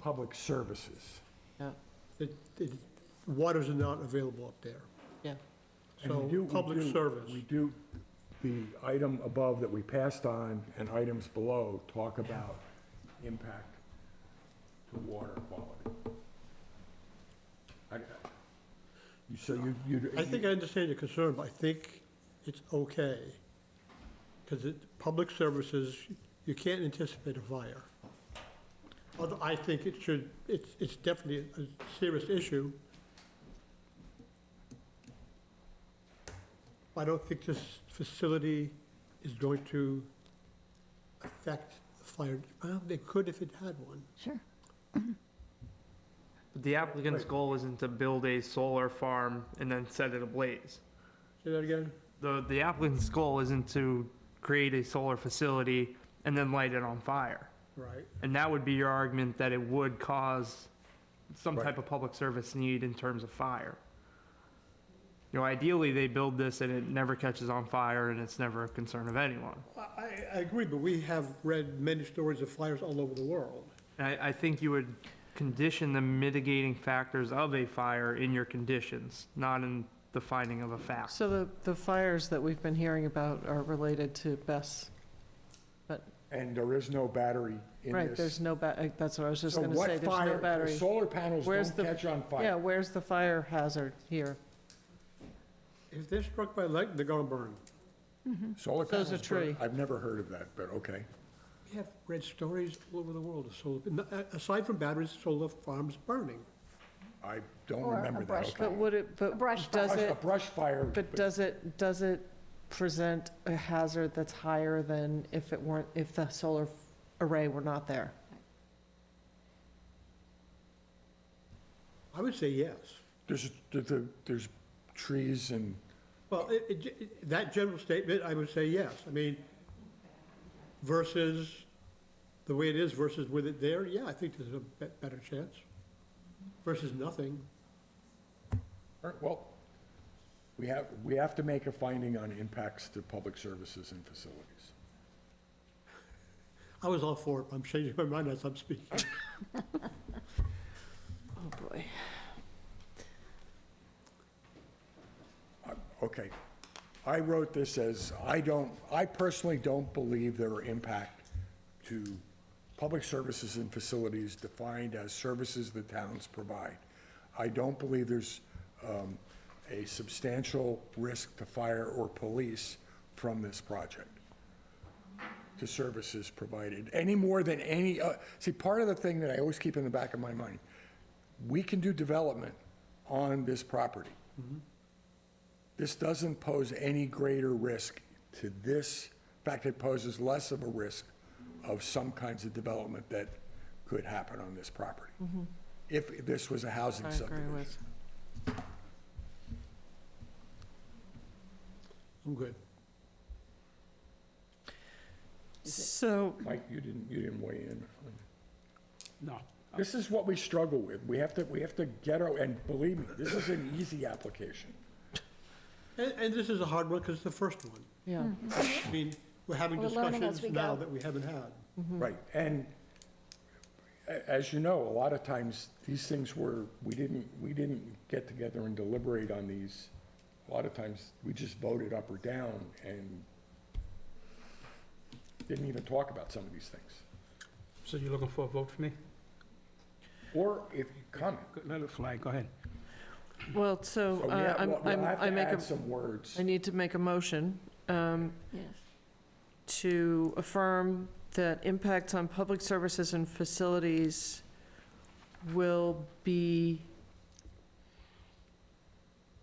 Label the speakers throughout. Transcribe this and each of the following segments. Speaker 1: public services.
Speaker 2: yeah,
Speaker 3: It- it- Waters are not available up there.
Speaker 2: yeah.
Speaker 1: And we
Speaker 3: So,
Speaker 1: do- we
Speaker 3: public
Speaker 1: do-
Speaker 3: service.
Speaker 1: We do, the item above that we passed on and items below talk about impact to water quality. I- I- you- So you, you.
Speaker 3: I think I understand your concern, but I think it's okay. Because it, public services, you can't anticipate a fire. Although I think it should, it's, it's definitely a serious issue. I don't think this facility is going to affect the fire. Well, they could if it had one.
Speaker 4: Sure.
Speaker 5: But The applicant's goal isn't to build a solar farm and then set it ablaze.
Speaker 3: Say that again?
Speaker 5: The, the applicant's goal isn't to create a solar facility and then light it on fire.
Speaker 3: Right.
Speaker 5: And that would be your argument that it would cause some
Speaker 1: Right.
Speaker 5: type of public service need in terms of fire. You know, ideally, they build this and it never catches on fire and it's never a concern of anyone.
Speaker 3: I, I agree, but we have read many stories of fires all over the world.
Speaker 5: And I, I think you would condition the mitigating factors of a fire in your conditions, not in the finding of a fact.
Speaker 2: So the, the fires that we've been hearing about are related to Bess.
Speaker 1: And there is no battery in this.
Speaker 2: Right, there's no, ba- uh, that's what I was just
Speaker 1: So
Speaker 2: going to
Speaker 1: what
Speaker 2: say, there's
Speaker 1: fire-
Speaker 2: no
Speaker 1: the
Speaker 2: battery.
Speaker 1: Solar panels
Speaker 2: Where's
Speaker 1: don't
Speaker 2: the-
Speaker 1: catch on fire.
Speaker 2: Yeah, where's the fire hazard here?
Speaker 3: If they're struck by lightning, they're gonna burn.
Speaker 1: Solar
Speaker 2: So
Speaker 1: panels.
Speaker 2: is a
Speaker 1: burn-
Speaker 2: tree.
Speaker 1: I've never heard of that, but okay.
Speaker 3: We have read stories all over the world of solar, n- uh, aside from batteries, solar farms burning.
Speaker 1: I don't
Speaker 4: Or a
Speaker 1: remember that,
Speaker 4: brush
Speaker 1: okay.
Speaker 2: But would it, but
Speaker 4: brush
Speaker 2: does
Speaker 1: Brush-
Speaker 2: it,
Speaker 1: A brush fire.
Speaker 2: but does it, does it present a hazard that's higher than if it weren't, if the solar array were not there?
Speaker 3: I would say yes.
Speaker 1: There's, there- there- there's trees and,
Speaker 3: Well, it- it ge- that general statement, I would say yes. I mean, versus the way it is versus with it there, yeah, I think there's a be- better chance. Versus nothing.
Speaker 1: all right, er, well, we have, we have to make a finding on impacts to public services and facilities.
Speaker 3: I was all for it, but I'm changing my mind as I'm speaking.
Speaker 2: Oh, boy.
Speaker 1: Okay. I wrote this as, I don't, I personally don't believe there are impact to public services and facilities defined as services the towns provide. I don't believe there's um, a substantial risk to fire or police from this project. to services provided, any more than any, uh, see, part of the thing that I always keep in the back of my mind, we can do development on this property.
Speaker 2: Mm-hmm.
Speaker 1: This doesn't pose any greater risk to this, in fact, it poses less of a risk of some kinds of development that could happen on this property. If this was a
Speaker 2: Mm-hmm. I
Speaker 1: housing
Speaker 2: agree
Speaker 1: subdivision.
Speaker 2: with,
Speaker 3: I'm good.
Speaker 2: so,
Speaker 1: Mike, you didn't, you didn't weigh in.
Speaker 6: No.
Speaker 1: This is what we struggle with. We have to, we have to get, our and believe me, this is an easy application.
Speaker 3: And, and this is a hard one because it's the first one.
Speaker 2: yeah.
Speaker 3: I mean, we're having
Speaker 4: We're learning as
Speaker 3: discussions
Speaker 4: we
Speaker 3: now
Speaker 4: go.
Speaker 3: that we haven't had.
Speaker 2: Mm-hmm.
Speaker 1: Right, and a- as you know, a lot of times, these things were, we didn't, we didn't get together and deliberate on these. A lot of times, we just voted up or down and didn't even talk about some of these things.
Speaker 6: So you're looking for a vote for me?
Speaker 1: Or if you comment.
Speaker 6: Go- Let it fly, go ahead.
Speaker 2: Well, so
Speaker 1: So we
Speaker 2: uh,
Speaker 1: have-
Speaker 2: I'm,
Speaker 1: we'll- we'll
Speaker 2: I'm,
Speaker 1: have to
Speaker 2: I make a,
Speaker 1: add some words.
Speaker 2: I need to make a motion, um,
Speaker 4: Yes.
Speaker 2: to affirm that impacts on public services and facilities will be,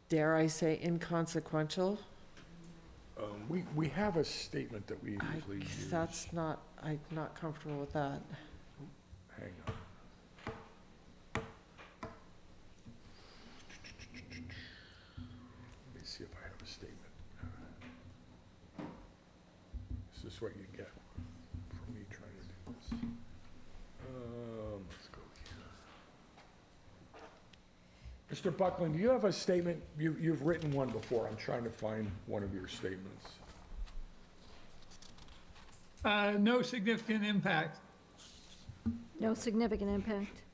Speaker 2: dare I say, inconsequential?
Speaker 1: Um, We, we have a statement that we
Speaker 2: I-
Speaker 1: usually use.
Speaker 2: That's not, I'm not comfortable with that.
Speaker 1: Hang on. Let me see if I have a statement. Is this what you get from me trying to do this? Um, let's go here. Mr. Buckland, do you have a statement? You, you've written one before. I'm trying to find one of your statements.
Speaker 7: Uh, no significant impact.
Speaker 4: No significant impact.